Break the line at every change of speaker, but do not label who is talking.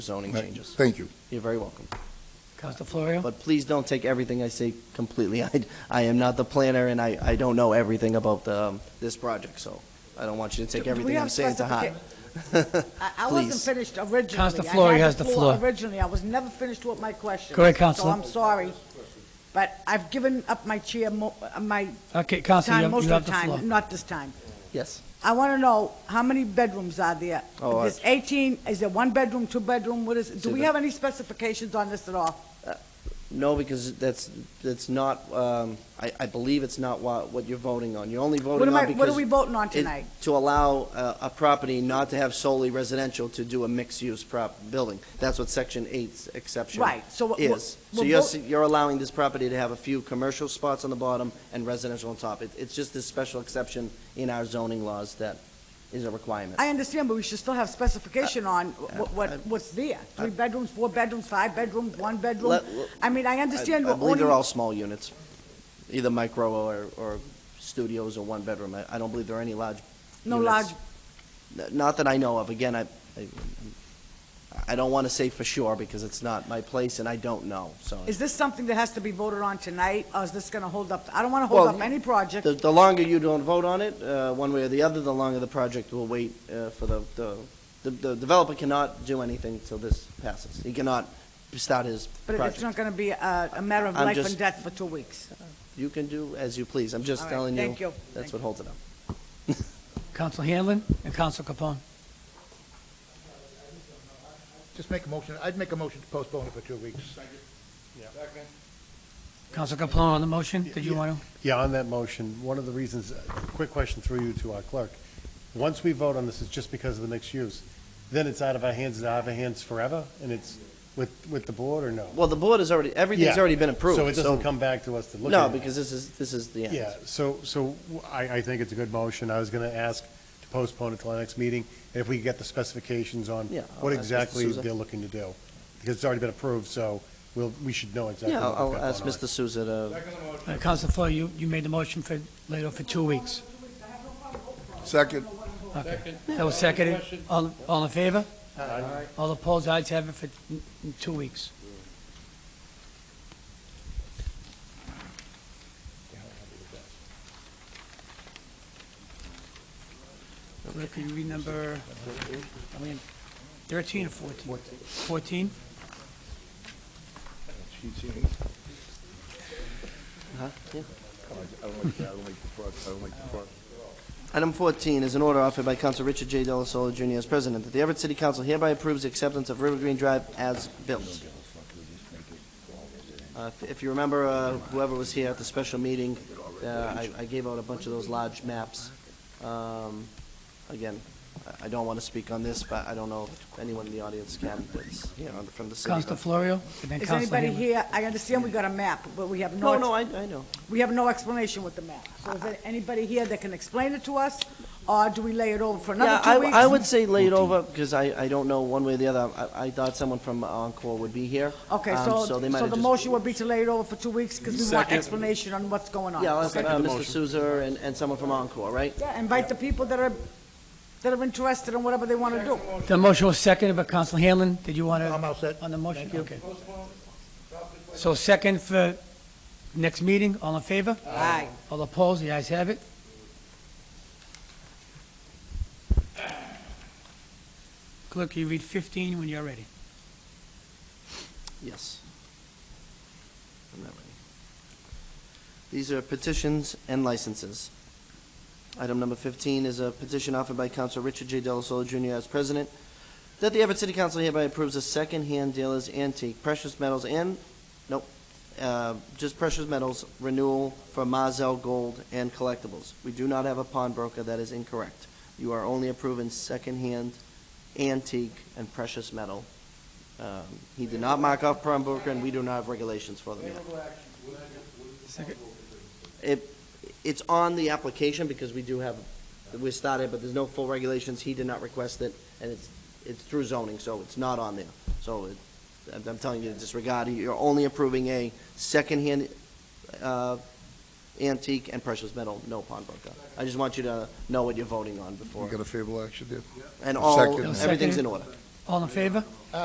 zoning changes.
Thank you.
You're very welcome.
Counselor Florio?
But please don't take everything I say completely. I, I am not the planner, and I, I don't know everything about the, um, this project, so I don't want you to take
Do- do
everything
we have
I'm saying to heart.
I, I wasn't
Please.
finished originally.
Counselor
I had
Flory has the floor.
Originally, I was never finished with my question.
Go ahead, Counselor.
So I'm sorry, but I've given up my chair, mo- uh, my
Okay, Counselor, you
time
have-
most
you have
of the
the floor.
time, not this time.
Yes.
I want to know, how many bedrooms are there?
Oh, I-
There's 18, is it one bedroom, two bedroom, what is,
See,
do we
the-
have any specifications on this at all?
No, because that's, that's not, um, I, I believe it's not what, what you're voting on. You're only
What
voting
am I,
on
what are
because
we voting on
it-
tonight?
to allow uh, a property not to have solely residential to do a mixed-use prop, building. That's what Section 8's exception
Right, so what- what-
is. So
we're
you're,
vote-
s- you're allowing this property to have a few commercial spots on the bottom and residential on top. It- It's just this special exception in our zoning laws that is a requirement.
I understand, but we should still have specification on what, what,
I-
what's there. Three bedrooms, four bedrooms, five bedrooms, one bedroom?
uh, Let- let-
I mean, I understand
I
we're
believe
owning
they're all small units, either micro or, or studios or one bedroom. I, I don't believe there are any large
No
units. N- Not that I know of. Again, I, I, I don't want to say for sure because it's not my place and I don't know, so.
Is this something that has to be voted on tonight, or is this going to hold up? I don't want to hold
Well,
up any project.
The, the longer you don't vote on it, uh, one way or the other, the longer the project will wait, uh, for the, the, the- the developer cannot do anything till this passes. He cannot start his
But it's
project.
not going to be a a matter of
I'm
life
just-
and death for two weeks.
You can do as you please. I'm just
All right,
telling you.
thank you,
That's
thank
what holds it up.
Counselor Hanlon and Counselor Capone.
Just make a motion, I'd make a motion to postpone it for two weeks.
Counselor Capone on the motion, did you
Yeah.
want
Yeah, on that motion, one of the reasons, uh, quick question through you to our clerk. Once we vote on this, it's just because of the mixed use. Then it's out of our hands, it's out of our hands forever, and it's with, with the board or no?
Well, the board has already, everything's
Yeah.
already been approved.
So it doesn't come back to us to look at.
No, because this is, this is the end.
Yeah, so, so I, I think it's a good motion. I was going to ask to postpone it till our next meeting, and if we could get the specifications on
Yeah, I'll
what
ask Mr.
exactly
Souza.
they're looking to do. Because it's already been approved, so we'll, we should know exactly
Yeah,
what
I'll
we've
I'll
got
ask
going on.
Mr. Souza to,
to? Uh, Counselor Florio, you, you made the motion for, later for two weeks.
Second.
Okay. That was seconded. All, all in favor? Aye. All opposed, ayes have it for n- n- two weeks. Rick, Can you read number, I mean, 13 or 14? 14?
item 14 is an order offered by Council Richard J. Delasola Jr. as president, that the Everett City Council hereby approves the acceptance of River Green Drive as built. Uh, if- If you remember, uh, whoever was here at the special meeting, uh, I I gave out a bunch of those large maps. Um, Again, I- I don't want to speak on this, but I don't know if anyone in the audience can, that's, you know, from the city.
Counselor Florio? and then
Is
Counselor
anybody
Hanlon.
here, I understand we got a map, but we have
No, no,
no,
I I know.
we have no explanation with the map. So is there anybody here that can explain it to us, or do we lay it over for
Yeah,
another
I,
two weeks?
I would say lay it over, because I, I don't know one way or the other. I, I thought someone from Encore would be here.
Okay,
um,
so,
they might
so
have
the
just-
motion would be to lay it over for two weeks, because we want explanation on what's going on.
Yeah, I'll ask, uh,
Okay.
Mr. Souza and, and someone from Encore, right?
Yeah, invite the people that are, that are interested in whatever they want to do.
The motion was seconded by Counselor Hanlon. Did you want to?
I'm all set.
On the motion? Okay. So second for next meeting, all in favor?
Aye.
All opposed, the ayes have it. Clerk, you read 15 when you're ready.
Yes. I'm not ready. These are petitions and licenses. Item number 15 is a petition offered by Council Richard J. Delasola Jr. as president, that the Everett City Council hereby approves a second-hand dealer's antique precious metals and, nope, uh, just precious metals renewal for Mazel Gold and Collectibles. We do not have a pawnbroker, that is incorrect. You are only approving second-hand, antique, and precious metal um, He did not mark off prime broker, and we do not have regulations for them yet. It, it's on the application, because we do have, we started, but there's no full regulations, he did not request it, and it's, it's through zoning, so it's not on there. So it, I'm- I'm telling you to disregard, it. you're only approving a secondhand uh, antique and precious metal, no pawnbroker. I just want you to know what you're voting on
We
before,
got a favorable action there.
and all,
Second.
everything's in order.
All in favor?